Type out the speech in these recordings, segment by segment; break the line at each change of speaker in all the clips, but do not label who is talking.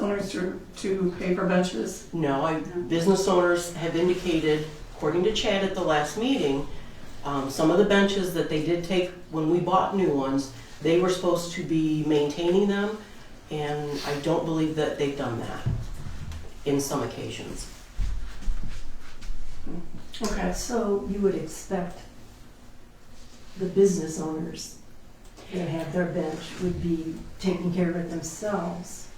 homeowners to, to pay for benches?
No, I, business owners have indicated, according to Chad at the last meeting, um, some of the benches that they did take when we bought new ones, they were supposed to be maintaining them, and I don't believe that they've done that in some occasions.
Okay,
So you would expect the business owners that have their bench would be taking care of it themselves.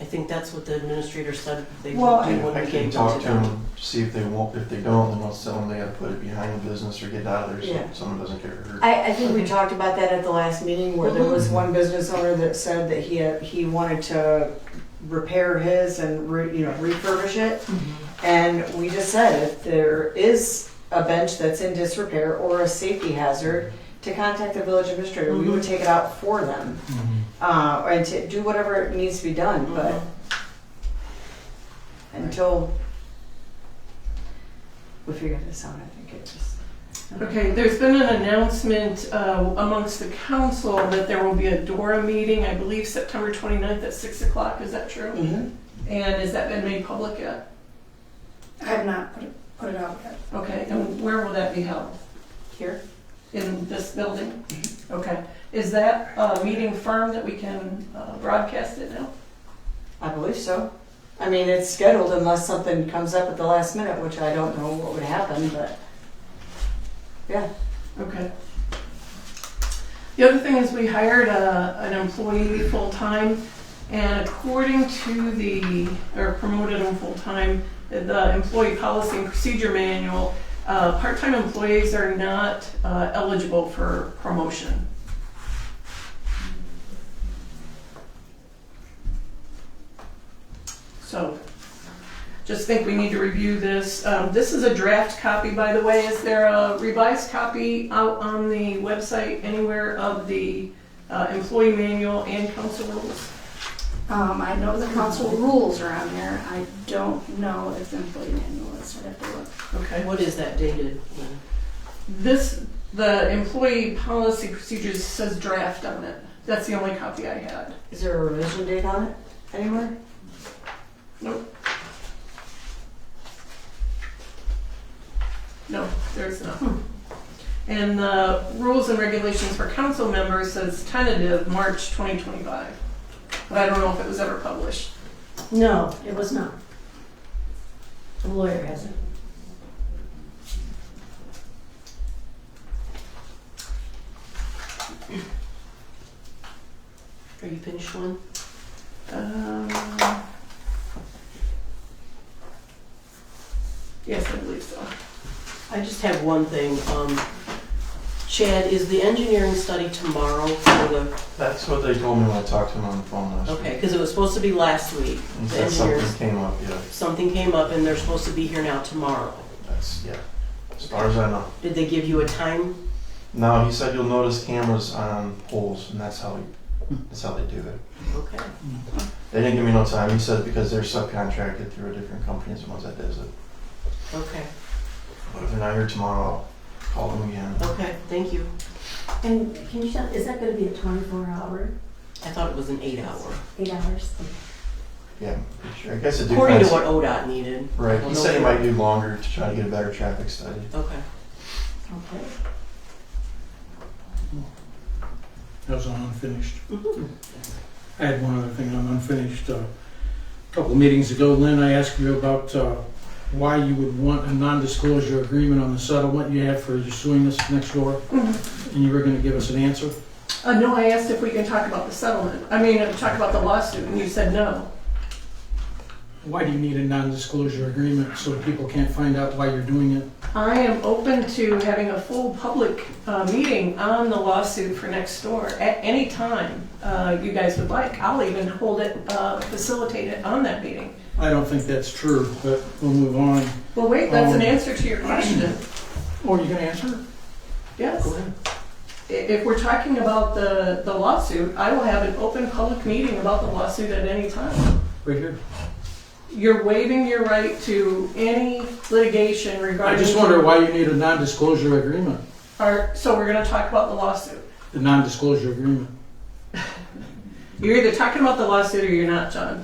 I think that's what the administrator said they
Well,
would do when
I
we
can
gave them
talk
to
to
them.
them, see if they won't, if they don't, then I'll sell them, they gotta put it behind the business or get it out of there
Yeah.
so someone doesn't get hurt.
I, I think we talked about that at the last meeting where there
Mm-hmm.
was one business owner that said that he, had- he wanted to repair his and re, you know, refurbish it.
Mm-hmm.
And we just said if there is a bench that's in disrepair or a safety hazard, to contact the village administrator, we would take it out for them. Uh, and to do whatever needs to be done, but until we figure this out, I think it just.
okay, there's been an announcement uh, amongst the council that there will be a DORA meeting, I believe September 29th at 6 o'clock, is that true? And has that been made public yet?
I have not put it, put it out yet.
Okay, and where will that be held?
Here?
In this building? Okay, is that uh meeting firm that we can uh, broadcast it now?
I believe so. I mean, it's scheduled unless something comes up at the last minute, which I don't know what would happen, but
Okay. The other thing is we hired a, an employee full-time and according to the, or promoted him full-time, the employee policy and procedure manual, uh, part-time employees are not uh, eligible for promotion. So, just think we need to review this. Um, this is a draft copy, by the way. Is there a revised copy out on the website anywhere of the uh, employee manual and council rules?
Um, I know the council rules are on there. I don't know if the employee manual is, I'd have to look.
Okay.
What is that dated?
This, the employee policy procedures says draft on it. That's the only copy I had.
is there a revision date on it anywhere?
No, there's not. And the rules and regulations for council members says tentative March 2025. But I don't know if it was ever published.
No, it was not. The lawyer has it.
Are you finished one?
Um, Yes, I believe so.
I just have one thing. Um, Chad, is the engineering study tomorrow for the,
That's what they told me when I talked to them on the phone last
okay,
week.
because it was supposed to be last week.
And
The
said something
engineers,
came up, yeah,
something came up and they're supposed to be here now tomorrow.
that's, yeah, as far as I know.
Did they give you a time?
No, he said you'll notice cameras on poles, and that's how, he- that's how they do it.
Okay.
They didn't give me no time, he said because they're subcontracted through a different company, as the ones that does it.
Okay,
But if they're not here tomorrow, I'll call them again.
okay, thank you.
And can you tell, is that gonna be a twenty-four hour,
I thought it was an eight hour,
eight hours?
Yeah, pretty sure. I guess it
according to
depends.
what ODOT needed.
Right,
Well,
he
no-
said he might do longer to try to get a better traffic study.
Okay,
Okay.
That was on unfinished.
Mm-hmm.
I had one other thing on unfinished. Uh, A couple meetings ago, Lynn, I asked you about uh, why you would want a non-disclosure agreement on the settlement you have for your suing us next door, and you were going to give us an answer.
Uh, no, I asked if we can talk about the settlement. I mean, uh, talk about the lawsuit, and you said no.
Why do you need a non-disclosure agreement so people can't find out why you're doing it?
I am open to having a full public uh, meeting on the lawsuit for next door at any time uh, you guys would like. I'll even hold it, uh, facilitate it on that meeting.
I don't think that's true, but we'll move on.
Well, wait, that's an
Um,
answer to your question.
Oh, you going to answer?
Yes.
Go ahead.
I- If we're talking about the, the lawsuit, I will have an open public meeting about the lawsuit at any time.
Right here.
You're waiving your right to any litigation
I
regarding.
just wonder why you need a non-disclosure agreement,
Our- so we're gonna talk about the lawsuit.
the non-disclosure agreement.
You're either talking about the lawsuit or you're not, John.